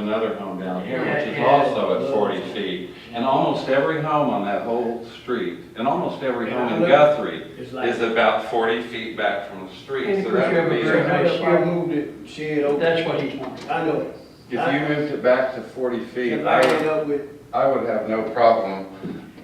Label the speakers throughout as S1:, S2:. S1: another home down here,
S2: Yeah,
S1: which is
S2: yeah.
S1: also at forty feet. And almost every home on that whole street, and almost every home in
S2: Yeah.
S1: Guthrie
S2: It's like,
S1: is about forty feet back from the street,
S3: And
S1: so
S3: of course,
S1: that
S3: you have
S1: would
S3: a
S1: be.
S3: very
S1: a-
S3: nice, you moved it, shed over.
S2: that's what he's wanting.
S3: I know it.
S1: If you moved it back to forty feet,
S3: If
S1: I
S3: I
S1: would,
S3: end up with,
S1: I would have no problem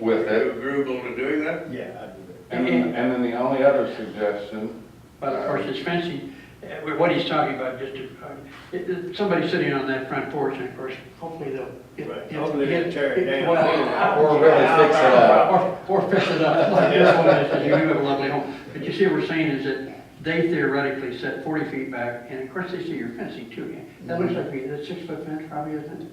S1: with it.
S4: agreeable to doing that?
S3: yeah, I do it.
S1: And then, and then the only other suggestion,
S2: But of course, it's fencing, uh, what he's talking about, just, to- uh, it- it- somebody sitting on that front porch, and of course, hopefully they'll. get-
S3: Right.
S2: get-
S3: Hopefully they'll
S2: get-
S3: tear it down.
S2: well,
S1: Or really fix it up.
S2: Or or fix it up, like this one, is, and you do have a lovely home. But you see, what we're saying is that they theoretically set forty feet back, and of course, they see your fencing too. yeah. That looks like, a- that's six foot fence probably, isn't it?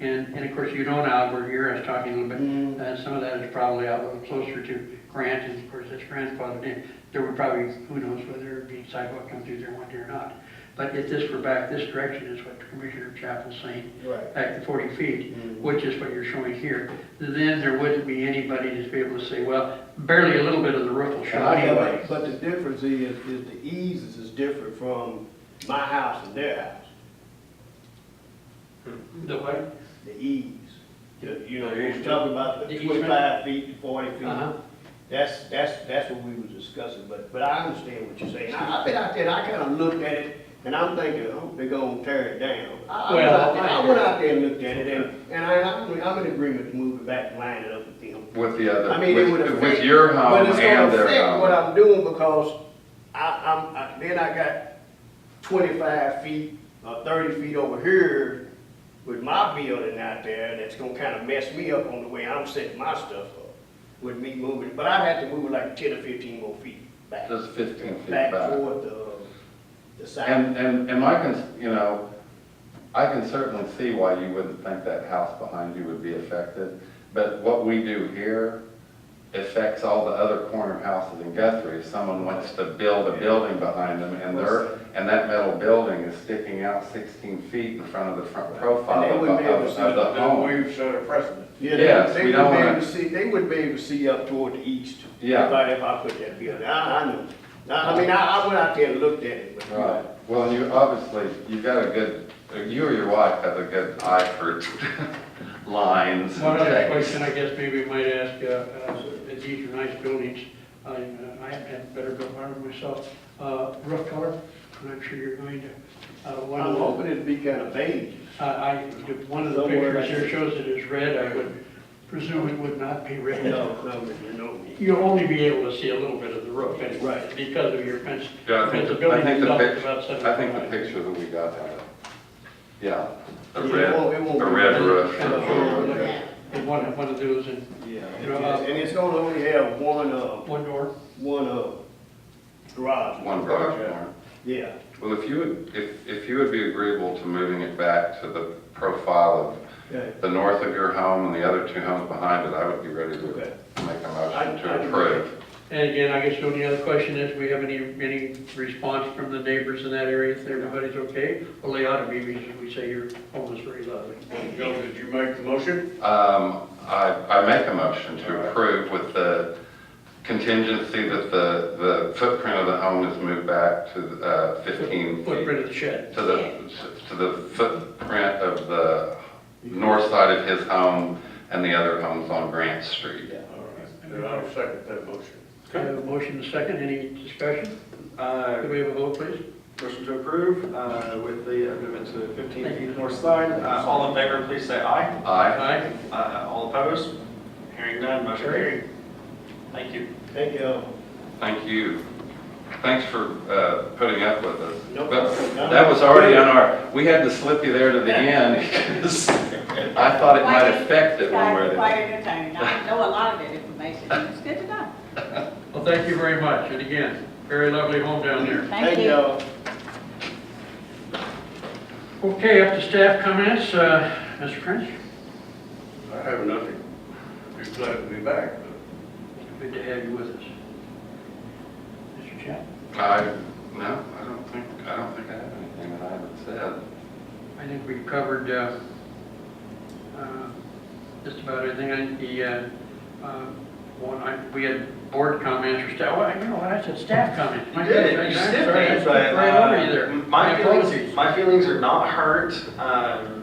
S2: And, and of course, you know now where you're, I was talking a little bit, uh, some of that is probably out a little closer to Grant, and of course, that's grandfathered in. There would probably, who knows whether it'd be sidewalk come through there one day or not. But if this were back this direction is what Commissioner Chapel's saying,
S3: Right.
S2: back to forty feet, which is what you're showing here, then there wouldn't be anybody to be able to say, well, barely a little bit of the roof will show anyway.
S3: But the difference is, is the ease is- is different from my house and their house,
S2: The way,
S3: the ease. You you know,
S4: The ease.
S3: we're talking about
S2: The
S3: the
S2: easement?
S3: twenty-five feet to forty
S2: Uh-huh.
S3: feet. That's, that's, that's what we were discussing, but, but I understand what you're saying. I- I've been out there, and I kinda looked at it, and I'm thinking, oh, they're gonna tear it down. I, I went
S2: Well,
S3: out there- I
S2: I-
S3: went out there and looked at it, and, and I, I'm, I'm in agreement to move it back and line it up with them.
S1: with the other,
S3: I mean, it would
S1: with,
S3: affect.
S1: with your home
S3: But it's gonna
S1: and their
S3: affect what
S1: home.
S3: I'm doing because I, I'm, I, then I got twenty-five feet or thirty feet over here with my building out there that's gonna kinda mess me up on the way I'm setting my stuff up with me moving. But I'd have to move it like ten or fifteen more feet back,
S1: Just fifteen feet
S3: back
S1: back.
S3: toward the, the side.
S1: And, and, and I can, you know, I can certainly see why you wouldn't think that house behind you would be affected. But what we do here affects all the other corner houses in Guthrie. If someone wants to build a building behind them and their, and that metal building is sticking out sixteen feet in front of the front profile
S3: And they
S1: of,
S3: wouldn't be able to
S1: of
S3: see
S1: of the
S4: Then
S1: home.
S4: we've set a precedent.
S3: Yeah, they-
S1: Yes,
S3: they
S1: we
S3: wouldn't
S1: don't
S3: be able
S1: wanna-
S3: to see- They wouldn't be able to see up toward the east.
S1: Yeah.
S3: If I, if I put that building, I, I know. I, I mean, I, I went out there and looked at it, but.
S1: Right, well, and you, obviously, you've got a good, you or your wife have a good eye for lines and
S2: One other
S1: shapes.
S2: question, I guess maybe we might ask, uh, uh, these are nice buildings, I, uh, I haven't had better built one myself, uh, roof color, and I'm sure you're going to, uh, one of
S3: I'm
S2: the.
S3: hoping it'd be kind of beige.
S2: Uh, I, one of the pictures here shows it is red, I would presume it would not be red.
S3: no, no.
S2: You'll only be able to see a little bit of the roof anyway,
S3: Right.
S2: because of your fence.
S1: Yeah, I think,
S2: Because the
S1: the- I
S2: building
S1: think the
S2: itself is
S1: picture,
S2: about seven
S1: I think the
S2: feet high.
S1: picture that we got had it. Yeah, a
S3: Yeah, it
S1: red,
S3: won't- it won't
S1: a
S3: be
S1: red
S3: red.
S1: roof.
S2: And, uh,
S1: or-
S3: Yeah.
S2: and one, one of those and
S3: Yeah.
S2: You know, uh,
S3: And it's gonna only have one, uh,
S2: one door.
S3: one, uh, garage.
S1: One garage door.
S3: Yeah.
S1: Well, if you would, if, if you would be agreeable to moving it back to the profile
S3: Okay.
S1: of the north of your home and the other two homes behind it, I would be ready to
S3: Okay.
S1: make a
S3: I-
S1: motion
S3: I-
S1: to approve.
S2: And again, I guess the only other question is, we have any, any response from the neighbors in that area, if everybody's okay? Well, they ought to be, because we say your home is very lovely.
S4: Joe, did you make the motion?
S1: Um, I, I make a motion to approve with the contingency that the, the footprint of the home is moved back to, uh, fifteen feet.
S2: Footprint of the shed.
S1: to the, to the footprint of the north side of his home and the other homes on Grant Street.
S3: Yeah.
S4: All right, then I'll second that motion.
S2: I have a motion and a second, any discussion?
S5: Uh,
S2: Could we have a vote, please?
S5: Motion to approve uh, with the amendment to 15 feet north side. Uh, All in favor, please say aye.
S1: Aye.
S2: Aye.
S5: Uh, All opposed? Hearing none, motion carried. Thank you.
S3: Thank you.
S1: Thank you. Thanks for uh, putting up with us.
S3: No
S1: But
S3: problem.
S1: That was already on our, we had to slip you there to the end because I thought it might affect it one way or the
S6: Quite
S1: other.
S6: entertaining. I know a lot of that information. It's good to know.
S2: Well, thank you very much, and again, very lovely home down there.
S6: Thank you.
S2: Okay, up to staff comments, uh, Mr. Prince,
S4: I have nothing. Be glad to be back.
S2: good to have you with us. Mr. Chap,
S1: I, no, I don't think, I don't think I have anything that I haven't said.
S2: I think we covered uh, uh, just about everything, and the, uh, uh, one, I- we had board comments or staff, well, you know, what, I said staff comments. My goodness, I'm sorry, I skipped Right over you there.
S5: uh, My
S2: apologies.
S5: feelings, my feelings are not hurt. Um,